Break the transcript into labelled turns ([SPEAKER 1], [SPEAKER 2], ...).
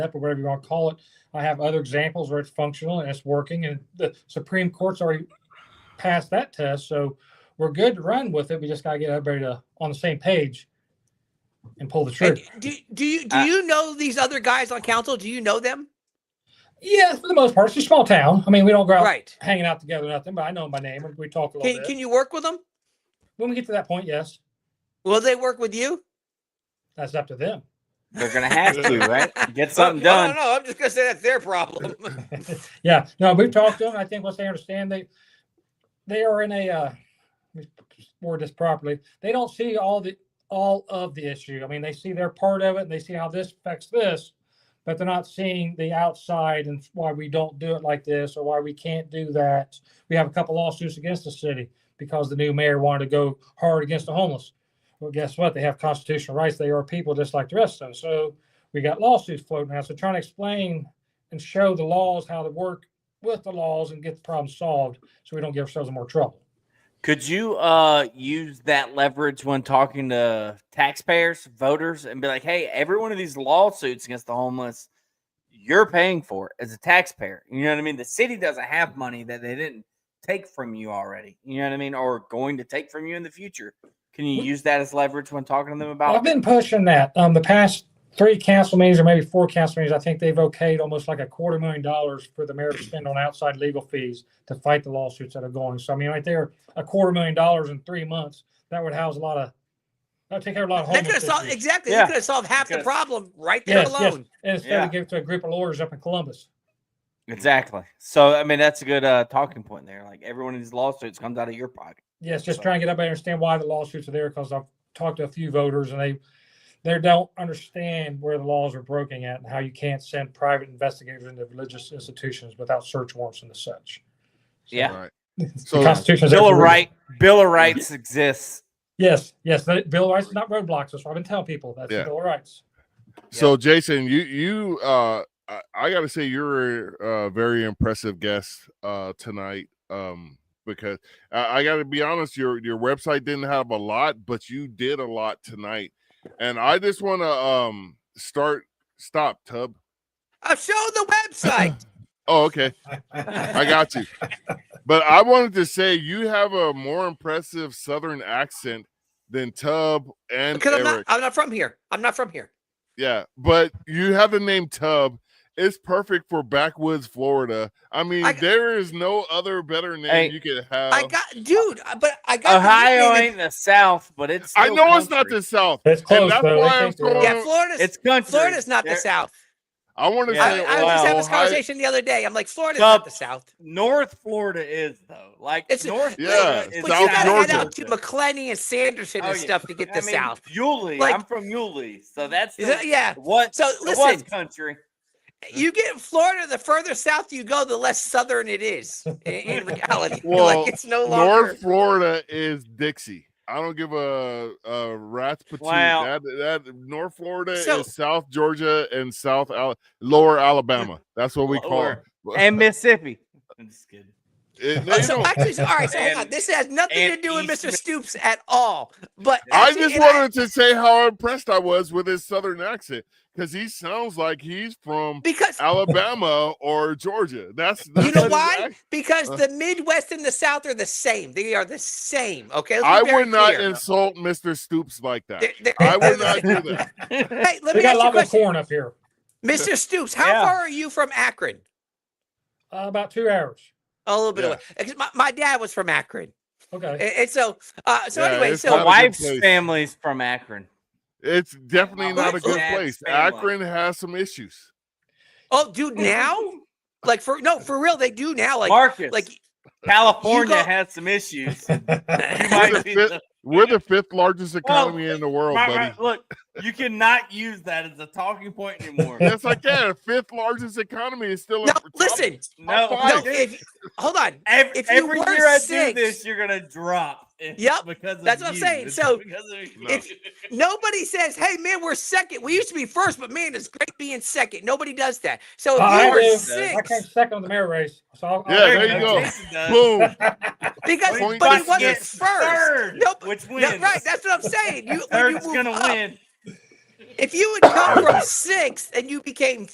[SPEAKER 1] or whatever you want to call it. I have other examples where it's functional and it's working, and the Supreme Court's already passed that test, so we're good to run with it. We just got to get everybody to, on the same page and pull the trigger.
[SPEAKER 2] And do do you do
[SPEAKER 3] Uh,
[SPEAKER 2] you know these other guys on council? Do you know them?
[SPEAKER 1] yeah, for the most part, it's a small town. I mean, we don't go out
[SPEAKER 2] Right.
[SPEAKER 1] hanging out together, nothing. But I know my name, and we talk a little
[SPEAKER 2] Can
[SPEAKER 1] bit.
[SPEAKER 2] can you work with them?
[SPEAKER 1] when we get to that point, yes,
[SPEAKER 2] Will they work with you?
[SPEAKER 1] that's up to them.
[SPEAKER 3] They're gonna have to, right? Get
[SPEAKER 2] Oh,
[SPEAKER 3] something
[SPEAKER 2] No,
[SPEAKER 3] done.
[SPEAKER 2] no, I'm just gonna say that's their problem.
[SPEAKER 1] yeah, no, we've talked to them. I think once they understand they they are in a uh, let me word this properly. They don't see all the all of the issue. I mean, they see their part of it and they see how this affects this, but they're not seeing the outside and why we don't do it like this or why we can't do that. We have a couple lawsuits against the city because the new mayor wanted to go hard against the homeless. Well, guess what? They have constitutional rights. They are people just like the rest of us. So we got lawsuits floating around. So trying to explain and show the laws how to work with the laws and get the problem solved so we don't give ourselves in more trouble.
[SPEAKER 3] Could you uh use that leverage when talking to taxpayers, voters, and be like, hey, every one of these lawsuits against the homeless, you're paying for it as a taxpayer. You know what I mean? The city doesn't have money that they didn't take from you already. You know what I mean? Or going to take from you in the future. Can you use that as leverage when talking to them
[SPEAKER 1] I've
[SPEAKER 3] about
[SPEAKER 1] been pushing that. Um, the past three council meetings or maybe four council meetings, I think they've okayed almost like a quarter million dollars for the mayor to spend on outside legal fees to fight the lawsuits that are going. So I mean, right there, a quarter million dollars in three months, that would house a lot of, that would take care of a lot of
[SPEAKER 2] that could have
[SPEAKER 1] homeless
[SPEAKER 2] solved
[SPEAKER 1] issues.
[SPEAKER 2] exactly.
[SPEAKER 3] Yeah.
[SPEAKER 2] You could have solved half the
[SPEAKER 3] Because-
[SPEAKER 2] problem right there
[SPEAKER 1] Yes, yes.
[SPEAKER 2] alone.
[SPEAKER 1] And instead
[SPEAKER 3] Yeah.
[SPEAKER 1] we give it to a group of lawyers up in Columbus.
[SPEAKER 3] exactly? So I mean that's a good uh talking point there. Like every one of these lawsuits comes out of your pocket.
[SPEAKER 1] Yes, just
[SPEAKER 3] So-
[SPEAKER 1] trying to get everybody to understand why the lawsuits are there, because I've talked to a few voters and they, they don't understand where the laws are broken at and how you can't send private investigators into religious institutions without search warrants and such.
[SPEAKER 3] Yeah.
[SPEAKER 4] Right.
[SPEAKER 1] The
[SPEAKER 4] So
[SPEAKER 1] Constitution.
[SPEAKER 3] Bill of Right Bill of Rights exists.
[SPEAKER 1] Yes, yes, the Bill of Rights is not roadblocks, that's what I've been telling people, that's the
[SPEAKER 4] Yeah.
[SPEAKER 1] Bill of Rights.
[SPEAKER 4] so Jason, you you uh I, I gotta say you're a very impressive guest uh tonight. Um because I, I gotta be honest, your your website didn't have a lot, but you did a lot tonight. And I just wanna um start stop tub.
[SPEAKER 2] Uh, show the website.
[SPEAKER 4] Oh, okay. I got you. But I wanted to say you have a more impressive Southern accent than Tub and
[SPEAKER 2] because I'm
[SPEAKER 4] Eric.
[SPEAKER 2] not. I'm not from here. I'm not from here.
[SPEAKER 4] yeah, but you have the name Tub. It's perfect for backwoods Florida. I mean,
[SPEAKER 2] I-
[SPEAKER 4] there is no other better name
[SPEAKER 3] Hey,
[SPEAKER 4] you could have.
[SPEAKER 2] I got, dude. uh, But I got the
[SPEAKER 3] Oh. Ohio
[SPEAKER 2] nickname
[SPEAKER 3] ain't the South, but it's.
[SPEAKER 4] I
[SPEAKER 3] still
[SPEAKER 4] know it's not
[SPEAKER 3] country.
[SPEAKER 4] the South.
[SPEAKER 1] It's close
[SPEAKER 4] that's
[SPEAKER 1] though.
[SPEAKER 4] why
[SPEAKER 1] They
[SPEAKER 4] I'm
[SPEAKER 1] think they're-
[SPEAKER 2] in-
[SPEAKER 4] throwing-
[SPEAKER 2] Yeah, Florida's
[SPEAKER 3] It's country.
[SPEAKER 2] Florida's not the
[SPEAKER 3] They're-
[SPEAKER 2] South.
[SPEAKER 4] I want to
[SPEAKER 3] Yeah.
[SPEAKER 2] I, I
[SPEAKER 4] say
[SPEAKER 2] was just having this
[SPEAKER 4] Ohio-
[SPEAKER 2] conversation the other day. I'm like, Florida's
[SPEAKER 3] Sup?
[SPEAKER 2] not the South.
[SPEAKER 3] North Florida is though. Like
[SPEAKER 2] It's
[SPEAKER 3] North.
[SPEAKER 4] Yeah,
[SPEAKER 3] Florida
[SPEAKER 4] it's
[SPEAKER 3] is
[SPEAKER 2] But
[SPEAKER 4] South
[SPEAKER 2] you gotta
[SPEAKER 4] Georgia.
[SPEAKER 2] head out to McClenny and Sanderson and
[SPEAKER 3] Oh, yeah.
[SPEAKER 2] stuff to get
[SPEAKER 3] I
[SPEAKER 2] the
[SPEAKER 3] mean,
[SPEAKER 2] South.
[SPEAKER 3] Yulee.
[SPEAKER 2] Like-
[SPEAKER 3] I'm from Yulee, so that's
[SPEAKER 2] Is
[SPEAKER 3] the-
[SPEAKER 2] that- yeah.
[SPEAKER 3] what.
[SPEAKER 2] So
[SPEAKER 3] the
[SPEAKER 2] listen,
[SPEAKER 3] what country.
[SPEAKER 2] you get Florida. The further south you go, the less southern it is. In, in reality,
[SPEAKER 4] Well,
[SPEAKER 2] like it's no longer.
[SPEAKER 4] North Florida is Dixie. I don't give a, a rat's patoot.
[SPEAKER 3] Wow.
[SPEAKER 4] That, that North Florida
[SPEAKER 2] So-
[SPEAKER 4] is South Georgia and South Al- Lower Alabama. That's what we
[SPEAKER 3] Lower.
[SPEAKER 4] call it.
[SPEAKER 3] and Mississippi. I'm just kidding.
[SPEAKER 4] It- no,
[SPEAKER 2] Oh,
[SPEAKER 4] you
[SPEAKER 2] so
[SPEAKER 4] don't.
[SPEAKER 2] actually, so, all right. So hang on.
[SPEAKER 3] And-
[SPEAKER 2] This has nothing to
[SPEAKER 3] and
[SPEAKER 2] do with
[SPEAKER 3] East
[SPEAKER 2] Mr.
[SPEAKER 3] Mi-
[SPEAKER 2] Stoops at all. But
[SPEAKER 4] I
[SPEAKER 2] actually-
[SPEAKER 4] just
[SPEAKER 2] and I-
[SPEAKER 4] wanted to say how impressed I was with his Southern accent because he sounds like he's from
[SPEAKER 2] because
[SPEAKER 4] Alabama or Georgia. That's, that's
[SPEAKER 2] You know
[SPEAKER 4] his
[SPEAKER 2] why?
[SPEAKER 4] accent.
[SPEAKER 2] Because
[SPEAKER 4] Uh.
[SPEAKER 2] the Midwest and the South are the same. They are the same. Okay. Let's be
[SPEAKER 4] I
[SPEAKER 2] very
[SPEAKER 4] would not
[SPEAKER 2] clear.
[SPEAKER 4] insult Mr. Stoops like that.
[SPEAKER 2] They're- they're-
[SPEAKER 4] I would
[SPEAKER 2] they're
[SPEAKER 4] not
[SPEAKER 2] the
[SPEAKER 4] do that.
[SPEAKER 2] same. Hey, let
[SPEAKER 1] We
[SPEAKER 2] me
[SPEAKER 1] got a
[SPEAKER 2] ask you a
[SPEAKER 1] lot more
[SPEAKER 2] question,
[SPEAKER 1] corn up here,
[SPEAKER 2] Mr. Stoops. How
[SPEAKER 3] Yeah.
[SPEAKER 2] far are you from Akron?
[SPEAKER 1] Uh, about two hours.
[SPEAKER 2] A little bit
[SPEAKER 4] Yeah.
[SPEAKER 2] away. 'Cause My, my dad was from Akron,
[SPEAKER 1] Okay.
[SPEAKER 2] and, and so uh, so
[SPEAKER 4] Yeah,
[SPEAKER 2] anyway,
[SPEAKER 4] it's
[SPEAKER 2] so
[SPEAKER 4] not
[SPEAKER 3] My
[SPEAKER 4] a good
[SPEAKER 3] wife's
[SPEAKER 4] place.
[SPEAKER 3] family's from Akron.
[SPEAKER 4] It's definitely
[SPEAKER 2] my
[SPEAKER 4] not a
[SPEAKER 2] wife's
[SPEAKER 4] good
[SPEAKER 3] dad's
[SPEAKER 4] place.
[SPEAKER 3] family.
[SPEAKER 4] Akron has some issues.
[SPEAKER 2] oh, dude, now like for no for real, they do now like
[SPEAKER 3] Marcus,
[SPEAKER 2] like
[SPEAKER 3] California
[SPEAKER 2] you go-
[SPEAKER 3] has some issues. You
[SPEAKER 2] yeah,
[SPEAKER 3] might
[SPEAKER 4] We're the
[SPEAKER 3] be
[SPEAKER 4] fifth
[SPEAKER 3] the-
[SPEAKER 4] We're the fifth largest economy in the world,
[SPEAKER 3] Right,
[SPEAKER 4] buddy.
[SPEAKER 3] right, look, you cannot use that as a talking point anymore.
[SPEAKER 4] Yes, I can. Fifth largest economy is still. a
[SPEAKER 2] No,
[SPEAKER 4] top-
[SPEAKER 2] listen.
[SPEAKER 3] no,
[SPEAKER 4] Five.
[SPEAKER 2] no.
[SPEAKER 3] I didn't.
[SPEAKER 2] If, hold on,
[SPEAKER 3] Every,
[SPEAKER 2] If you
[SPEAKER 3] every
[SPEAKER 2] were
[SPEAKER 3] year I
[SPEAKER 2] six-
[SPEAKER 3] do this, you're gonna drop. It's
[SPEAKER 2] Yep,
[SPEAKER 3] because of
[SPEAKER 2] that's what I'm
[SPEAKER 3] you.
[SPEAKER 2] saying.
[SPEAKER 3] It's
[SPEAKER 2] So,
[SPEAKER 3] because of you.
[SPEAKER 2] if- nobody says, "Hey man, we're second. We used to be first, but man, it's great being second. Nobody does that. So if
[SPEAKER 1] I do.
[SPEAKER 2] you were
[SPEAKER 1] I came
[SPEAKER 2] six
[SPEAKER 1] second on the mayor race, so I'll. I'll-
[SPEAKER 4] Yeah, there you go.
[SPEAKER 3] Jason does.
[SPEAKER 4] Boom.
[SPEAKER 2] because
[SPEAKER 4] Point
[SPEAKER 2] but he
[SPEAKER 4] back
[SPEAKER 2] wasn't
[SPEAKER 4] against
[SPEAKER 2] first.
[SPEAKER 3] Third,
[SPEAKER 2] Nope.
[SPEAKER 3] which
[SPEAKER 2] No,
[SPEAKER 3] wins.
[SPEAKER 2] right, that's what I'm saying. You, when you
[SPEAKER 3] Third's
[SPEAKER 2] move
[SPEAKER 3] gonna
[SPEAKER 2] up,
[SPEAKER 3] win.
[SPEAKER 2] if you would come from sixth and you became